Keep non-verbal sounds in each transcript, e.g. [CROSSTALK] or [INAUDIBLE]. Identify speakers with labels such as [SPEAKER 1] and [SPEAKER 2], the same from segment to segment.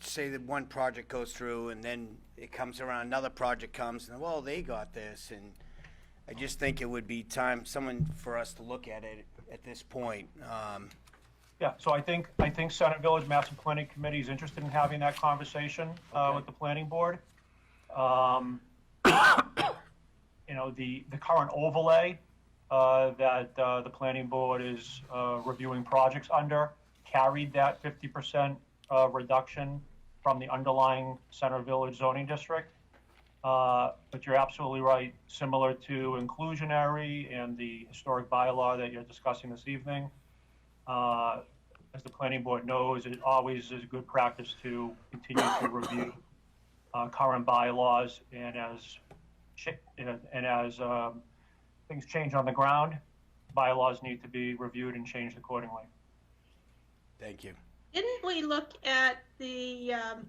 [SPEAKER 1] say that one project goes through and then it comes around, another project comes and, well, they got this and I just think it would be time, someone for us to look at it at this point. Um,
[SPEAKER 2] Yeah, so I think, I think Senate Village Master Planning Committee is interested in having that conversation uh, with the planning board. Um, [COUGHS] You know, the, the current overlay uh, that uh, the planning board is uh, reviewing projects under carried that 50% uh, reduction from the underlying Center Village zoning district. Uh, But you're absolutely right, similar to inclusionary and the historic bylaw that you're discussing this evening. Uh, As the planning board knows, it always is good practice to continue to review uh, current bylaws and as, chi- and and as um, things change on the ground, bylaws need to be reviewed and changed accordingly.
[SPEAKER 1] Thank you.
[SPEAKER 3] Didn't we look at the, um,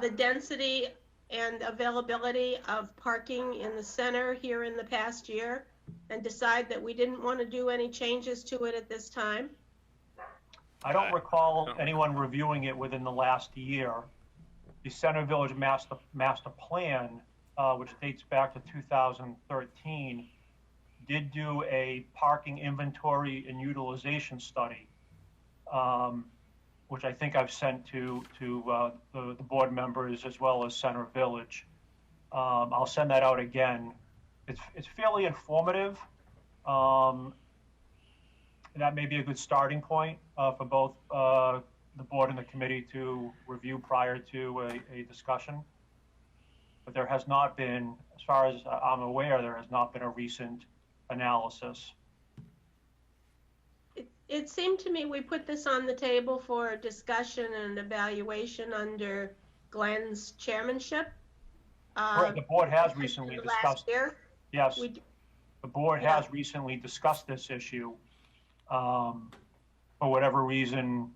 [SPEAKER 3] the density and availability of parking in the center here in the past year? And decide that we didn't want to do any changes to it at this time?
[SPEAKER 2] I
[SPEAKER 4] I
[SPEAKER 2] don't recall
[SPEAKER 4] don't-
[SPEAKER 2] anyone reviewing it within the last year. The Center Village Master, Master Plan, uh, which dates back to 2013, did do a parking inventory and utilization study, um, which I think I've sent to, to, uh, the, the board members as well as Center Village. Um, I'll send that out again. It's, it's fairly informative. Um, and that may be a good starting point uh, for both uh, the board and the committee to review prior to a, a discussion. But there has not been, as far as I'm aware, there has not been a recent analysis.
[SPEAKER 3] It- It seemed to me we put this on the table for discussion and evaluation under Glenn's chairmanship. uh,
[SPEAKER 2] the board has recently
[SPEAKER 3] Last
[SPEAKER 2] discussed,
[SPEAKER 3] year,
[SPEAKER 2] yes,
[SPEAKER 3] we,
[SPEAKER 2] the board
[SPEAKER 3] yeah.
[SPEAKER 2] has recently discussed this issue. Um, for whatever reason,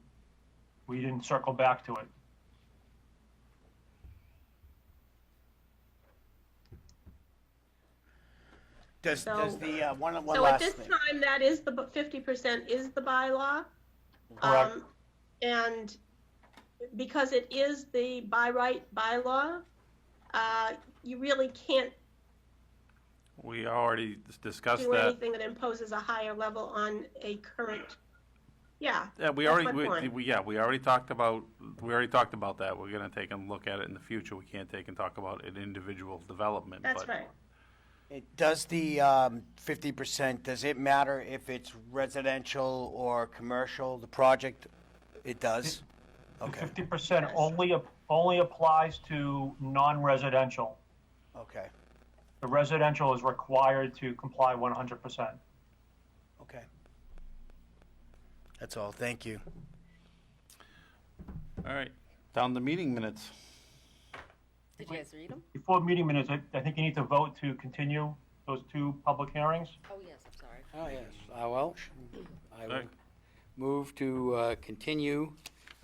[SPEAKER 2] we didn't circle back to it.
[SPEAKER 1] Does, does
[SPEAKER 3] So-
[SPEAKER 1] the, uh, one, one
[SPEAKER 3] so at
[SPEAKER 1] last
[SPEAKER 3] this
[SPEAKER 1] thing.
[SPEAKER 3] time, that is the, fifty percent is the bylaw.
[SPEAKER 2] Correct.
[SPEAKER 3] Um, And because it is the by right bylaw, uh, you really can't
[SPEAKER 4] We already dis- discussed
[SPEAKER 3] do
[SPEAKER 4] that.
[SPEAKER 3] anything that imposes a higher level on a current, yeah.
[SPEAKER 4] Yeah, we
[SPEAKER 3] that's
[SPEAKER 4] already,
[SPEAKER 3] my
[SPEAKER 4] we-
[SPEAKER 3] point.
[SPEAKER 4] we, yeah, we already talked about, we already talked about that. We're gonna take and look at it in the future. We can't take and talk about an individual development,
[SPEAKER 3] That's
[SPEAKER 4] but.
[SPEAKER 3] right.
[SPEAKER 1] It- Does the um, 50%, does it matter if it's residential or commercial, the project? It does? Okay,
[SPEAKER 2] Fifty percent only, ap- only applies to non-residential.
[SPEAKER 1] okay,
[SPEAKER 2] The residential is required to comply one hundred percent.
[SPEAKER 1] okay. That's all, thank you.
[SPEAKER 4] All right, down the meeting minutes.
[SPEAKER 5] Did you guys read them?
[SPEAKER 2] Before meeting minutes, I, I think you need to vote to continue those two public hearings.
[SPEAKER 5] Oh, yes, I'm sorry.
[SPEAKER 6] Oh, yes, uh, well, I will
[SPEAKER 4] Alright.
[SPEAKER 6] move to, uh, continue,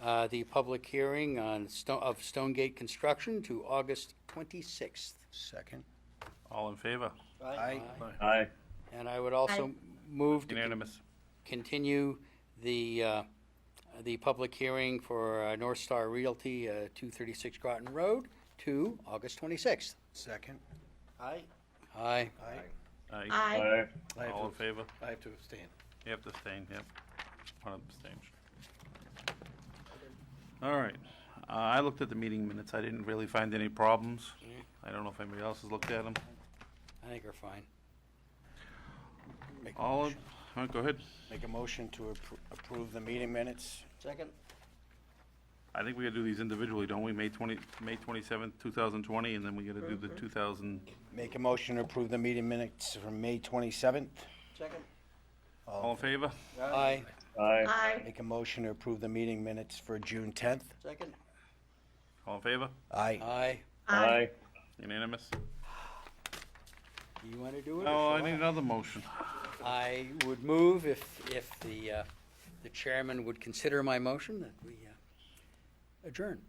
[SPEAKER 6] uh, the public hearing on Stone, of Stonegate Construction to August twenty-sixth.
[SPEAKER 1] Second.
[SPEAKER 4] All in favor?
[SPEAKER 1] Aye.
[SPEAKER 7] Aye.
[SPEAKER 6] And I would also move to con-
[SPEAKER 4] Unanimous.
[SPEAKER 6] continue the, uh, the public hearing for uh, North Star Realty, uh, two thirty-six Groton Road to August twenty-sixth.
[SPEAKER 1] Second.
[SPEAKER 6] Aye. Aye.
[SPEAKER 1] Aye.
[SPEAKER 4] Aye.
[SPEAKER 3] I,
[SPEAKER 7] Aye.
[SPEAKER 6] I have
[SPEAKER 4] All in
[SPEAKER 6] to-
[SPEAKER 4] favor?
[SPEAKER 6] I have to abstain.
[SPEAKER 4] You have to abstain, yep. One abstain. All right, uh, I looked at the meeting minutes. I didn't really find any problems. I don't know if anybody else has looked at them.
[SPEAKER 6] I think we're fine.
[SPEAKER 1] Make a
[SPEAKER 4] All, in-
[SPEAKER 1] motion-
[SPEAKER 4] all right, go ahead.
[SPEAKER 1] Make a motion to appro- approve the meeting minutes?
[SPEAKER 6] Second?
[SPEAKER 4] I think we gotta do these individually, don't we? May twenty, May twenty-seventh, two thousand twenty, and then we gotta do the two thousand,
[SPEAKER 1] Make a motion to approve the meeting minutes from May 27th?
[SPEAKER 6] Second.
[SPEAKER 4] all in favor?
[SPEAKER 6] Aye.
[SPEAKER 7] Aye.
[SPEAKER 3] I,
[SPEAKER 1] Make a motion to approve the meeting minutes for June 10th?
[SPEAKER 6] Second?
[SPEAKER 4] All in favor?
[SPEAKER 1] Aye.
[SPEAKER 6] Aye.
[SPEAKER 3] I,
[SPEAKER 4] Unanimous?
[SPEAKER 6] You want to do it? or
[SPEAKER 4] Oh, I
[SPEAKER 6] shall
[SPEAKER 4] need another motion.
[SPEAKER 6] I would move if, if the, uh, the chairman would consider my motion that we uh, adjourn.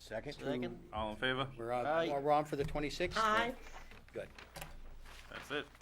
[SPEAKER 1] Second?
[SPEAKER 4] All in favor?
[SPEAKER 6] We're on, we're on for the 26th?
[SPEAKER 3] I.
[SPEAKER 6] Good.
[SPEAKER 4] That's it.